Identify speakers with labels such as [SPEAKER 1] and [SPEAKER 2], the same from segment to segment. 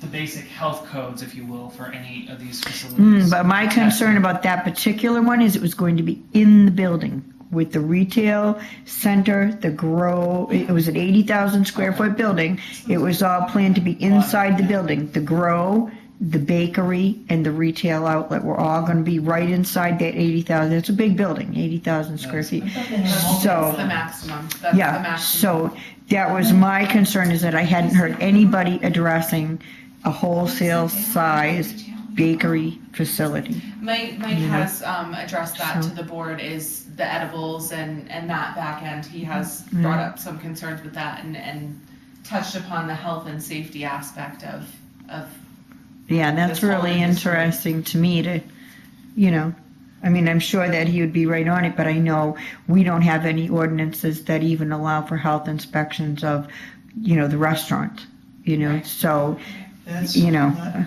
[SPEAKER 1] the basic health codes, if you will, for any of these facilities.
[SPEAKER 2] Mm, but my concern about that particular one is it was going to be in the building with the retail center, the grow, it was an eighty thousand square foot building. It was all planned to be inside the building. The grow, the bakery, and the retail outlet were all gonna be right inside that eity thousand. It's a big building, eighty thousand square feet. So.
[SPEAKER 3] That's the maximum, that's the
[SPEAKER 2] Yeah,
[SPEAKER 3] maximum.
[SPEAKER 2] so that was my concern is that I hadn't heard anybody addressing a wholesale size bakery facility.
[SPEAKER 3] Mike, Mike
[SPEAKER 2] Yeah.
[SPEAKER 3] has, um, addressed that
[SPEAKER 2] So-
[SPEAKER 3] to the board is the edibles and, and that back end. He has
[SPEAKER 2] Yeah.
[SPEAKER 3] brought up some concerns with that and, and touched upon the health and safety aspect of, of,
[SPEAKER 2] Yeah, that's
[SPEAKER 3] That's all
[SPEAKER 2] really
[SPEAKER 3] in this one.
[SPEAKER 2] interesting to me to, you know, I mean, I'm sure that he would be right on it, but I know we don't have any ordinances that even allow for health inspections of, you know, the restaurant, you know, so,
[SPEAKER 4] That's
[SPEAKER 2] You know.
[SPEAKER 4] not entirely-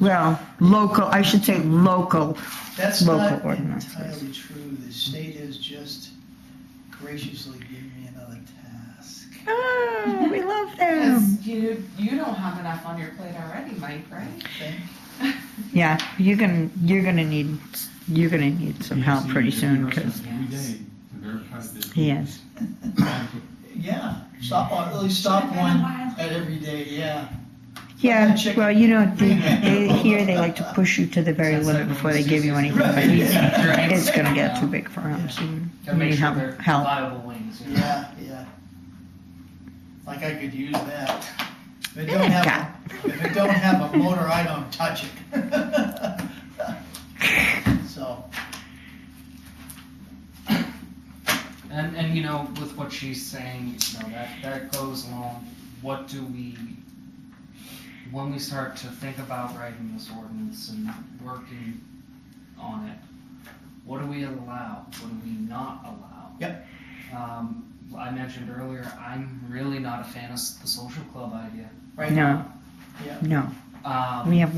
[SPEAKER 2] well, local, I should say local,
[SPEAKER 4] That's
[SPEAKER 2] Local
[SPEAKER 4] not
[SPEAKER 2] ordinances.
[SPEAKER 4] entirely true. The state has just graciously given me another task.
[SPEAKER 2] oh, we love them.
[SPEAKER 3] because you, you don't have enough on your plate already, Mike, right?
[SPEAKER 4] Thank
[SPEAKER 2] Yeah, you're gonna, you're gonna need, you're gonna need some help pretty soon, cause, Yes.
[SPEAKER 4] Yeah, stop on, at least stop one at every day, yeah.
[SPEAKER 2] yeah, well, you know, they, they, here they like to push you to the very limit before they give you anything, but he's, It's gonna get too big for him, so you
[SPEAKER 1] Gotta make
[SPEAKER 2] need
[SPEAKER 1] sure
[SPEAKER 2] help,
[SPEAKER 1] they're
[SPEAKER 2] help.
[SPEAKER 1] reliable wings. you know?
[SPEAKER 4] Yeah, yeah. Like I could use that. If it
[SPEAKER 2] Yeah,
[SPEAKER 4] don't
[SPEAKER 2] God.
[SPEAKER 4] have, if it don't have a motor, I don't touch it. So,
[SPEAKER 1] And, and you know, with what she's saying, you know, that, that goes along, what do we, when we start to think about writing this ordinance and working on it, what do we allow, what do we not allow?
[SPEAKER 4] Yep.
[SPEAKER 1] Um, I mentioned earlier, I'm really not a fan of s- the social club idea.
[SPEAKER 4] right
[SPEAKER 2] No,
[SPEAKER 4] now, yeah.
[SPEAKER 2] no,
[SPEAKER 1] Um,
[SPEAKER 2] we have,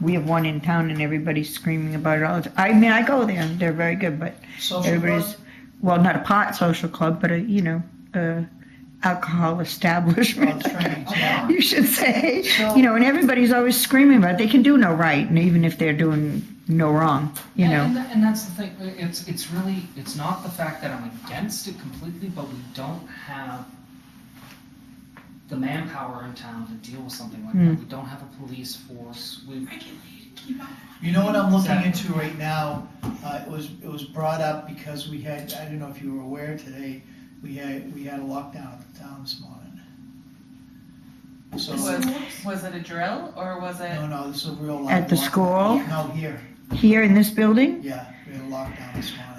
[SPEAKER 2] we have one in town and everybody's screaming about it all the time. I mean, I go there, they're very good, but
[SPEAKER 4] Social club,
[SPEAKER 2] everybody's, well, not a pot social club, but a, you know, a alcohol establishment.
[SPEAKER 4] Well, it's right.
[SPEAKER 2] You should say,
[SPEAKER 4] So-
[SPEAKER 2] you know, and everybody's always screaming about it, they can do no right, and even if they're doing no wrong, you
[SPEAKER 1] And-
[SPEAKER 2] know.
[SPEAKER 1] And, tha- and that's the thing, uh, it's, it's really, it's not the fact that I'm against it completely, but we don't have the manpower in town to deal with something like that.
[SPEAKER 2] Mm.
[SPEAKER 1] We don't have a police force, we,
[SPEAKER 4] You know what I'm looking
[SPEAKER 1] Exactly.
[SPEAKER 4] into right now? Uh, it was, it was brought up because we had, I don't know if you were aware today, we had, we had a lockdown at the town this morning. So,
[SPEAKER 3] Was, was it a drill or was it?
[SPEAKER 4] no, no, this is a real lockdown.
[SPEAKER 2] At the school,
[SPEAKER 4] No, here,
[SPEAKER 2] here in this building,
[SPEAKER 4] yeah, we had a lockdown this morning.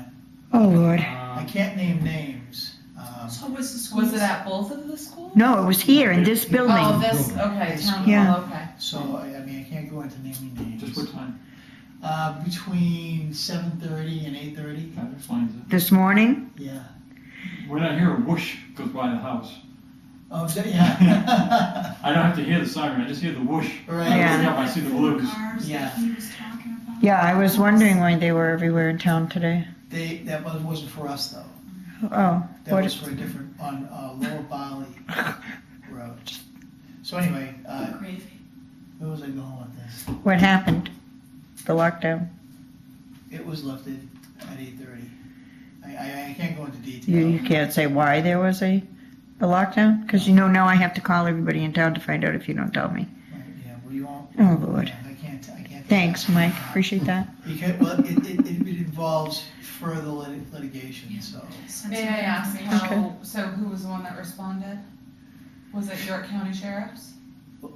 [SPEAKER 2] oh, Lord.
[SPEAKER 4] I
[SPEAKER 1] um,
[SPEAKER 4] can't name names. um,
[SPEAKER 5] So was the school?
[SPEAKER 3] Was it at both of the schools?
[SPEAKER 2] No, it was here in this building.
[SPEAKER 3] Oh, this, okay, town
[SPEAKER 2] Yeah.
[SPEAKER 3] hall, okay.
[SPEAKER 4] So, I, I mean, I can't go into naming
[SPEAKER 6] Just
[SPEAKER 4] names.
[SPEAKER 6] what time?
[SPEAKER 4] Uh, between seven thirty and eight thirty,
[SPEAKER 6] That explains
[SPEAKER 2] This morning?
[SPEAKER 4] yeah.
[SPEAKER 6] it. When I hear a whoosh goes by the house,
[SPEAKER 4] Oh, is that- yeah.
[SPEAKER 6] I don't have to hear the siren, I just hear the whoosh. I
[SPEAKER 4] Right,
[SPEAKER 2] Yeah.
[SPEAKER 6] look up, I see the blues.
[SPEAKER 4] Yeah.
[SPEAKER 2] Yeah, I was wondering why they were everywhere in town today.
[SPEAKER 4] they, that was- wasn't for us though.
[SPEAKER 2] Oh,
[SPEAKER 4] That
[SPEAKER 2] what,
[SPEAKER 4] was for a different, on uh, Lower Bali Road. So anyway, uh,
[SPEAKER 5] Crazy.
[SPEAKER 4] where was I going with this?
[SPEAKER 2] what happened? The lockdown?
[SPEAKER 4] It was lifted at eight thirty. I, I, I can't go into
[SPEAKER 2] You,
[SPEAKER 4] detail.
[SPEAKER 2] you can't say why there was a, a lockdown? Because you know now I have to call everybody in town to find out if you don't tell me.
[SPEAKER 4] Right, Yeah, well, you won't.
[SPEAKER 2] Oh, Lord.
[SPEAKER 4] I can't, I can't. Uh,
[SPEAKER 2] Thanks, Mike. Appreciate that.
[SPEAKER 4] Because, well, it, it, it it involves further lit- litigation, so.
[SPEAKER 3] May I ask
[SPEAKER 2] Okay.
[SPEAKER 3] how, so who was the one that responded? Was it York County Sheriff's?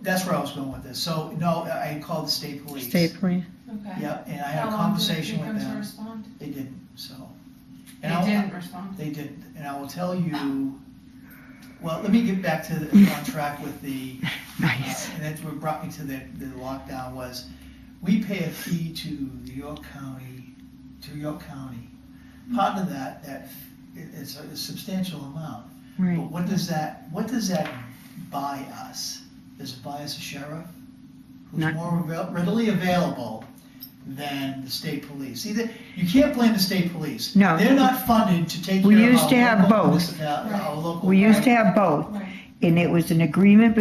[SPEAKER 4] That's where I was going with this. So, no, I called the state police.
[SPEAKER 2] Stay, please.
[SPEAKER 3] Okay.
[SPEAKER 4] Yep, and I
[SPEAKER 3] How
[SPEAKER 4] had a
[SPEAKER 3] long did it take
[SPEAKER 4] conversation
[SPEAKER 3] them
[SPEAKER 4] with
[SPEAKER 3] to
[SPEAKER 4] them.
[SPEAKER 3] respond?
[SPEAKER 4] They didn't, so.
[SPEAKER 3] They
[SPEAKER 4] And I'll-
[SPEAKER 3] didn't respond.
[SPEAKER 4] They didn't, and I will tell you, well, let me get back to, the- on track with the, uh,
[SPEAKER 2] Nice.
[SPEAKER 4] and that's what brought me to the, the lockdown was, we pay a fee to the York County, to York County. Part of that, that, it- it's a substantial amount.
[SPEAKER 2] Right.
[SPEAKER 4] But what does that, what does that buy us? Does it buy us a sheriff
[SPEAKER 2] Not-
[SPEAKER 4] who's more avail- readily available than the state police? See, that- you can't blame the state police.
[SPEAKER 2] No.
[SPEAKER 4] They're not funded to take care of.
[SPEAKER 2] We used
[SPEAKER 4] our
[SPEAKER 2] to have
[SPEAKER 4] local
[SPEAKER 2] both.
[SPEAKER 4] municipal- our local-
[SPEAKER 2] We used to have both,
[SPEAKER 3] Right.
[SPEAKER 2] and it was an agreement